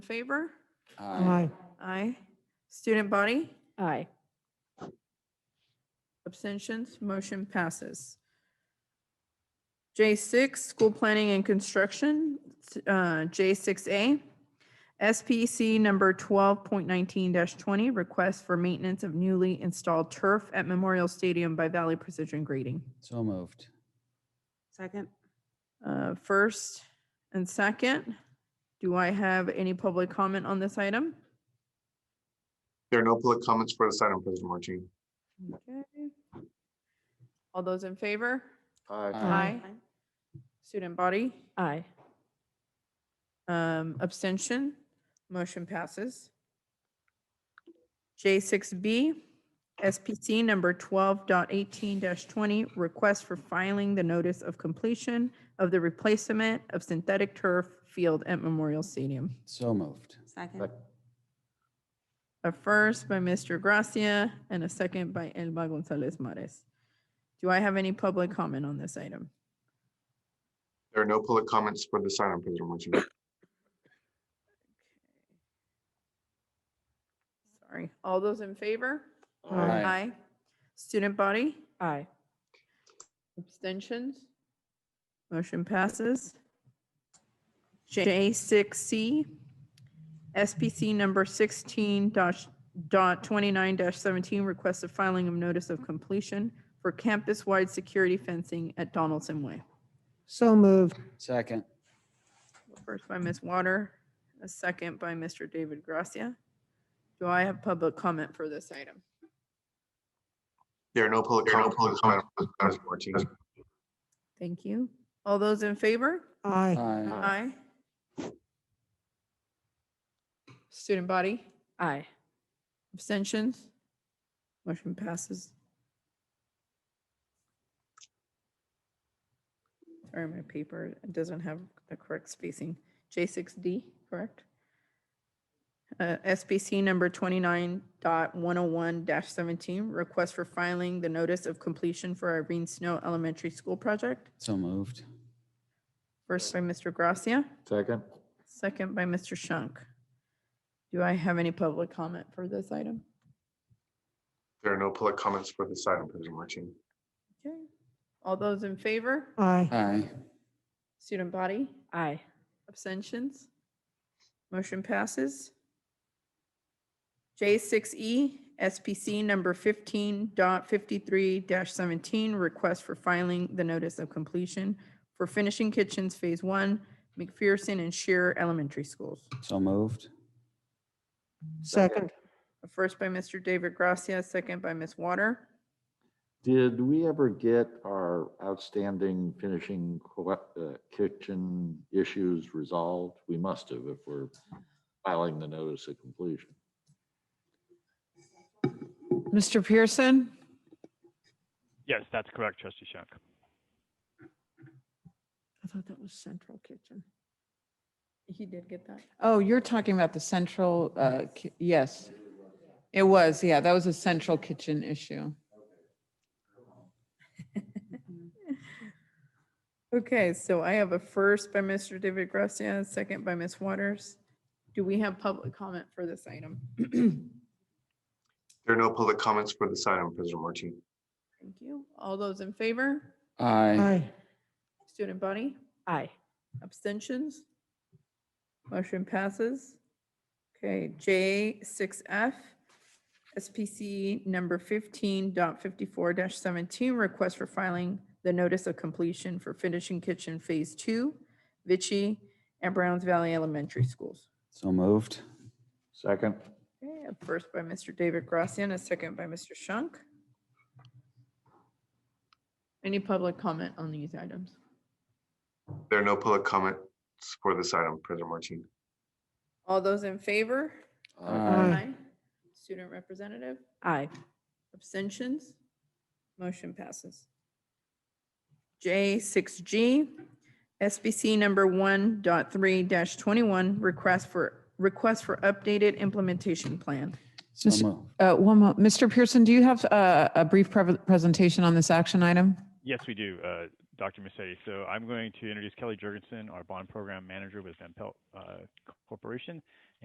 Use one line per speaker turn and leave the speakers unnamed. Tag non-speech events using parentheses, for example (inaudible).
favor?
Aye.
Aye. Student body?
Aye.
Abstentions? Motion passes. J6, School Planning and Construction, uh, J6A. SPC number 12.19-20, Request for Maintenance of Newly Installed Turf at Memorial Stadium by Valley Precision Grading.
So moved.
Second.
Uh, First and second, do I have any public comment on this item?
There are no public comments for this item, President Martine.
Okay. All those in favor?
Aye.
Student body?
Aye.
Um, abstention, motion passes. J six B, SPC number 12.18 twenty, request for filing the notice of completion of the replacement of synthetic turf field at Memorial Stadium.
So moved.
Second.
A first by Mr. Gracia and a second by Elba Gonzalez Mares. Do I have any public comment on this item?
There are no public comments for this item, President Martine.
Sorry, all those in favor?
Aye.
Student body?
Aye.
Abstentions? Motion passes. J six C, SPC number sixteen dash dot twenty-nine dash seventeen, request of filing of notice of completion for campus-wide security fencing at Donaldson Way.
So moved.
Second.
First by Ms. Water, a second by Mr. David Gracia. Do I have public comment for this item?
There are no public comments for this item, President Martine.
Thank you. All those in favor?
Aye.
Aye.
Aye. Student body?
Aye.
Abstentions? Motion passes. Sorry, my paper doesn't have the correct spacing. J6D, correct? Uh, SBC number 29.101-17, request for filing the notice of completion for Irene Snow Elementary School project.
So moved.
First by Mr. Gracia,
Second.
second by Mr. Shunk. Do I have any public comment for this item?
There are no public comments for this item, President Martine.
Okay. All those in favor?
Aye.
Aye.
Student body?
Aye.
Abstentions? Motion passes. E, J6E, SPC number 15.53-17, request for filing the notice of completion for finishing kitchens Phase 1, McPherson and Shear Elementary Schools.
So moved.
Second.
First by Mr. David Gracia, second by Ms. Water.
Did we ever get our outstanding finishing co- uh, kitchen issues resolved? We must have if we're filing the notice of completion.
Mr. Pearson?
Yes, that's correct, Trustee Shank.
I thought that was Central Kitchen.
He did get that.
Oh, you're talking about the central, uh, ki- yes. It was, yeah, that was a central kitchen issue.
Mm-hmm. Okay, so I have a first by Mr. David Gracia, a second by Ms. Waters. Do we have public comment for this item? (clears throat)
There are no public comments for this item, President Martine.
Thank you. All those in favor?
Aye.
Student body?
Aye.
Abstentions? Motion passes. Okay, J6F, SPC number 15.54-17, request for filing the notice of completion for finishing kitchen Phase 2, Vichy and Browns Valley Elementary Schools.
So moved.
Second.
Okay, a first by Mr. David Gracia and a second by Mr. Shunk. Any public comment on these items?
There are no public comments for this item, President Martine.
All those in favor?
Uh,
Aye.
Student representative,
Aye.
abstentions? Motion passes. J six G, SBC number one twenty-one, request for, request for updated implementation plan.
So
Mr.
moved.
Uh, one mo, Mr. Pearson, do you have uh, a, a brief pre- presentation on this action item?
Yes, we do, uh, Dr. Mercedes. So I'm going to introduce Kelly Jurgensen, our bond program manager with Van Pelt uh, Corporation,